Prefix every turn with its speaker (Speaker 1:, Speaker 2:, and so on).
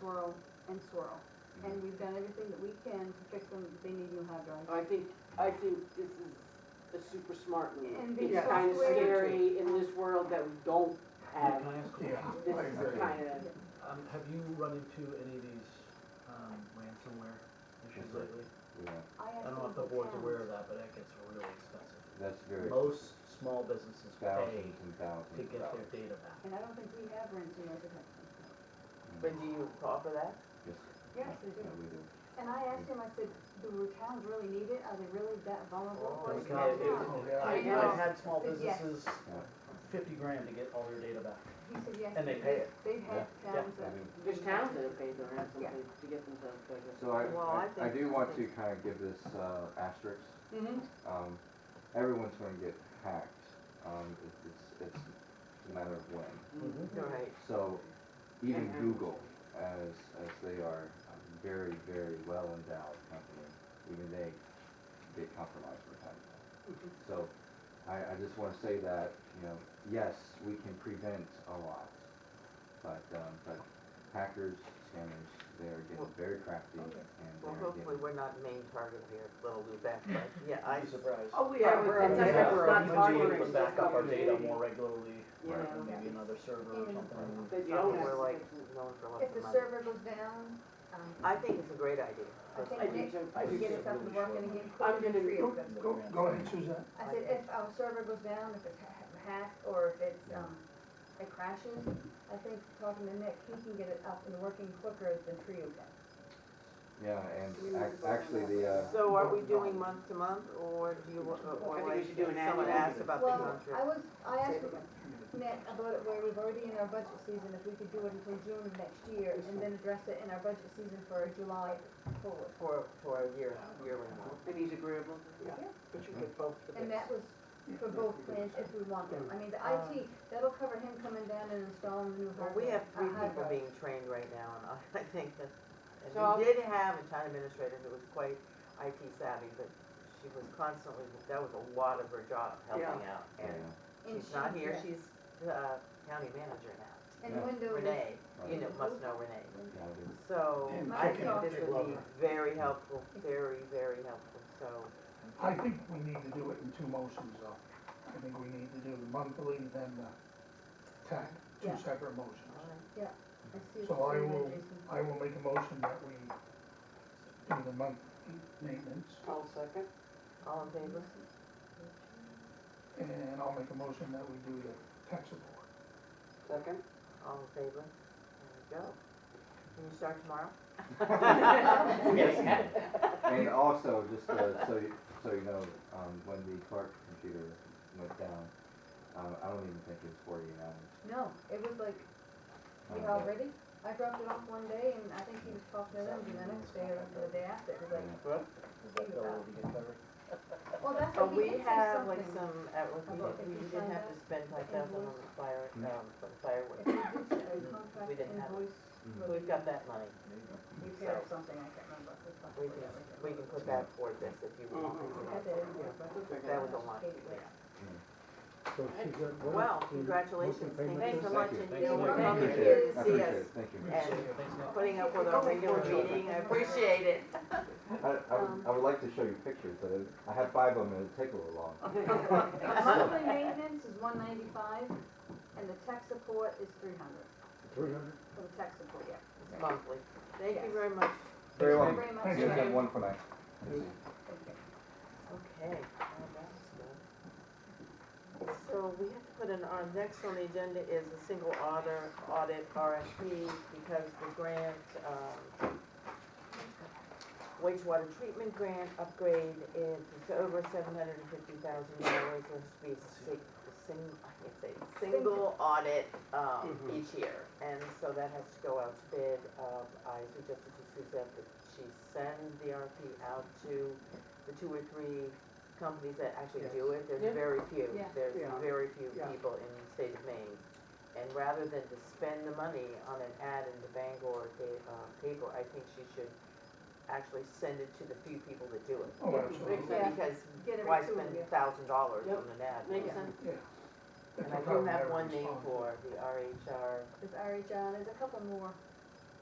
Speaker 1: swirl, and swirl.
Speaker 2: Mm-hmm.
Speaker 1: And we've done everything that we can to fix them, they need new hard drives.
Speaker 3: I think, I think this is a super smart move.
Speaker 1: And be
Speaker 3: It's kind of
Speaker 1: software-
Speaker 3: scary in this world that we don't have,
Speaker 2: Can I ask you,
Speaker 4: Yeah,
Speaker 3: this
Speaker 4: I
Speaker 3: is the
Speaker 4: agree.
Speaker 3: kind of,
Speaker 2: um, have you run into any of these, um, ransomware issues
Speaker 5: Mhm.
Speaker 2: lately?
Speaker 5: Yeah,
Speaker 1: I
Speaker 2: I don't know if the board's aware of that, but that gets really expensive.
Speaker 5: that's very,
Speaker 2: Most small businesses pay
Speaker 5: thousands and
Speaker 2: to
Speaker 5: thousands
Speaker 2: get
Speaker 5: of
Speaker 2: their
Speaker 5: dollars.
Speaker 2: data back.
Speaker 1: And I don't think we have ransomware protection.
Speaker 5: mm,
Speaker 3: but do you call for that?
Speaker 5: Yes,
Speaker 1: Yes, they do.
Speaker 5: yeah, we do.
Speaker 1: And I asked him, I said, do towns really need it? Are they really that vulnerable for
Speaker 2: Well,
Speaker 1: it?
Speaker 2: it's not- it-
Speaker 4: Yeah.
Speaker 2: I, I had small
Speaker 1: Yes.
Speaker 2: businesses, fifty grand to get all their data back.
Speaker 1: He said, yes.
Speaker 2: And they pay it.
Speaker 1: They've had
Speaker 2: Yeah.
Speaker 1: towns
Speaker 5: I
Speaker 1: that.
Speaker 5: mean,
Speaker 3: There's towns that have paid their
Speaker 1: Yeah.
Speaker 3: ransom to get themselves back.
Speaker 5: So I,
Speaker 6: Well, I
Speaker 5: I- I
Speaker 6: think-
Speaker 5: do want to kind of give this uh, asterisk.
Speaker 3: Mhm.
Speaker 5: Um, everyone's going to get hacked. Um, it- it's, it's a matter of when.
Speaker 2: Mm-hmm.
Speaker 5: Mm-hmm.
Speaker 3: Right.
Speaker 5: So even
Speaker 3: And-
Speaker 5: Google, as, as they are a very, very well endowed company, even they get compromised from time to
Speaker 6: Mm-hmm.
Speaker 5: time. So I, I just want to say that, you know, yes, we can prevent a lot, but, um, but hackers, scammers, they're
Speaker 6: Well-
Speaker 5: getting very crafty and
Speaker 6: Well,
Speaker 5: they're
Speaker 6: hopefully
Speaker 5: getting.
Speaker 6: we're not the main target here, little Lubec, but yeah, I,
Speaker 2: I'd be surprised.
Speaker 3: Oh, we are,
Speaker 6: We're-
Speaker 3: it's
Speaker 6: we're-
Speaker 3: not,
Speaker 2: Yeah,
Speaker 3: it's not
Speaker 2: we
Speaker 3: hard
Speaker 2: do
Speaker 3: work, it's
Speaker 2: put back up our
Speaker 3: just
Speaker 2: data
Speaker 3: complicated.
Speaker 2: more regularly,
Speaker 3: You
Speaker 2: right,
Speaker 3: know.
Speaker 2: maybe another server or
Speaker 1: And-
Speaker 2: something.
Speaker 3: But you
Speaker 6: not
Speaker 3: don't
Speaker 6: that
Speaker 3: have
Speaker 6: we're
Speaker 3: to
Speaker 6: like
Speaker 3: fix it.
Speaker 6: known for
Speaker 1: If
Speaker 6: lots
Speaker 1: the
Speaker 6: of money.
Speaker 1: server goes down, um,
Speaker 6: I think it's a great idea.
Speaker 1: I think
Speaker 3: I
Speaker 6: personally.
Speaker 3: do
Speaker 1: Nick
Speaker 3: too.
Speaker 2: I
Speaker 1: should
Speaker 2: do
Speaker 1: get
Speaker 2: too.
Speaker 1: us up and working again.
Speaker 3: I'm gonna-
Speaker 4: Go, go, go ahead, Suzanne.
Speaker 1: I said, if our server goes down, if it's ha- hacked, or if it's, um, it crashes, I think talking to Nick, he can get it up and working quicker than Trio can.
Speaker 5: Yeah, and ac- actually the, uh,
Speaker 6: So are we doing month to month, or do you, wa-
Speaker 3: I
Speaker 6: or
Speaker 3: think we
Speaker 6: like,
Speaker 3: should do an
Speaker 6: someone
Speaker 3: annual.
Speaker 6: asked about the
Speaker 1: Well,
Speaker 6: contract?
Speaker 1: I was, I asked Nick about it where we've already in our budget season, if we could do it until June of next year, and then address it in our budget season for July forward.
Speaker 6: For, for a year, yearly one?
Speaker 3: And he's agreeable.
Speaker 6: But you could both of
Speaker 1: And
Speaker 6: us.
Speaker 1: that was for both plans if we want them. I mean, the
Speaker 6: Uh,
Speaker 1: IT, that'll cover him coming down and installing the new
Speaker 6: Well,
Speaker 1: hardware.
Speaker 6: we have three
Speaker 1: uh, hard
Speaker 6: people
Speaker 1: drive.
Speaker 6: being trained right now, and I- I think that, and
Speaker 3: So I'll-
Speaker 6: we did have a town administrator who was quite IT savvy, but she was constantly, that was a lot of her job, helping out.
Speaker 5: yeah,
Speaker 6: And
Speaker 1: And
Speaker 6: she's not
Speaker 1: Oh, she-
Speaker 6: here,
Speaker 1: yeah.
Speaker 6: she's uh, county manager now.
Speaker 1: And
Speaker 5: Yeah.
Speaker 1: Windows.
Speaker 6: Renee,
Speaker 5: right,
Speaker 6: you know, must know Renee.
Speaker 5: yeah, it is.
Speaker 6: So
Speaker 4: And
Speaker 6: I
Speaker 1: chicken.
Speaker 6: think this would be very helpful, very, very helpful, so.
Speaker 4: I think we need to do it in two motions, though. I think we need to do the monthly, then the tax, two
Speaker 1: Yeah.
Speaker 4: separate motions.
Speaker 6: all right.
Speaker 1: I see
Speaker 4: So
Speaker 1: what
Speaker 4: I
Speaker 1: you're saying,
Speaker 4: will,
Speaker 1: Jason.
Speaker 4: I will make a motion that we do the monthly maintenance,
Speaker 3: I'll second.
Speaker 6: All in favor?
Speaker 4: and I'll make a motion that we do the tax support.
Speaker 3: Second.
Speaker 6: All in favor? There we go. Can you start tomorrow?
Speaker 2: Yes.
Speaker 5: And also, just uh, so you, so you know, um, when the Clark computer went down, um, I don't even think it was 48 hours.
Speaker 1: No, it was like,
Speaker 5: Um,
Speaker 1: you know, ready? I dropped it off one day and I think he was talking to them the next day or the day after. It
Speaker 5: Um,
Speaker 1: was like,
Speaker 2: Is that bill will be covered?
Speaker 1: well, that's what
Speaker 6: But
Speaker 1: he
Speaker 6: we
Speaker 1: did say
Speaker 6: have like
Speaker 1: something.
Speaker 6: some, at- like, we
Speaker 1: About
Speaker 6: didn't-
Speaker 1: if
Speaker 6: we
Speaker 1: you
Speaker 6: didn't
Speaker 1: sign
Speaker 6: have
Speaker 1: up
Speaker 6: to spend five thousand on the fire,
Speaker 5: Hmm.
Speaker 6: um, for the fireworks.
Speaker 1: If we did say a contract
Speaker 6: We didn't have it.
Speaker 1: invoice
Speaker 5: Mhm.
Speaker 1: for
Speaker 6: We've got that money.
Speaker 1: repair or something, I can't remember. We talked
Speaker 6: We
Speaker 1: about
Speaker 6: can,
Speaker 1: it.
Speaker 6: we can put that toward this if you want.
Speaker 3: Mhm.
Speaker 1: I did, yeah, but-
Speaker 6: That was a lot, yeah.
Speaker 7: So she's got one.
Speaker 6: Well, congratulations. Thanks so much. and
Speaker 2: Thank you.
Speaker 6: you for
Speaker 5: I
Speaker 6: coming
Speaker 5: appreciate
Speaker 6: here
Speaker 5: it,
Speaker 6: to
Speaker 5: I
Speaker 6: see
Speaker 5: appreciate
Speaker 6: us
Speaker 5: it, thank you.
Speaker 6: and
Speaker 2: Thanks, Nick.
Speaker 6: putting up with our regular meeting. I appreciate it.
Speaker 5: I, I, would- I would like to show you pictures, but I have five of them, it'd take a little long.
Speaker 1: Monthly maintenance is one ninety-five, and the tech support is three hundred,
Speaker 7: Three hundred?
Speaker 1: for the tech support, yeah.
Speaker 6: It's monthly. Thank you very much.
Speaker 1: Thank
Speaker 5: Very
Speaker 1: you
Speaker 5: long,
Speaker 1: very much.
Speaker 5: you
Speaker 4: Thank
Speaker 5: guys
Speaker 1: Jay.
Speaker 5: have one for night.
Speaker 1: Thank you.
Speaker 6: Okay, well, that's good. So we have to put in, our next on the agenda is a single audit, audit RFP because the grant, um, wastewater treatment grant upgrade is it's over seven hundred and fifty thousand dollars. There has to be a si- a sing, I can't say, single audit, um,
Speaker 3: Mhm.
Speaker 6: each year. And so that has to go out to bid. Um, I suggested to Suzette that she send the RFP out to the two or three companies that actually do it,
Speaker 3: Yeah.
Speaker 6: there's very few,
Speaker 1: Yeah.
Speaker 6: there's
Speaker 3: Yeah.
Speaker 6: very few
Speaker 3: Yeah.
Speaker 6: people in the state of Maine. And rather than to spend the money on an ad in the Bangor pa- uh, paper, I think she should actually send it to the few people that do it.
Speaker 4: Oh, absolutely,
Speaker 1: Yeah.
Speaker 6: Because
Speaker 1: Get it
Speaker 6: why
Speaker 1: to
Speaker 6: spend
Speaker 1: you.
Speaker 6: thousand dollars
Speaker 3: Yep.
Speaker 6: on an ad?
Speaker 3: Makes sense.
Speaker 4: yeah.
Speaker 6: And I do have one name for the RHR,
Speaker 1: There's RHR, there's a couple more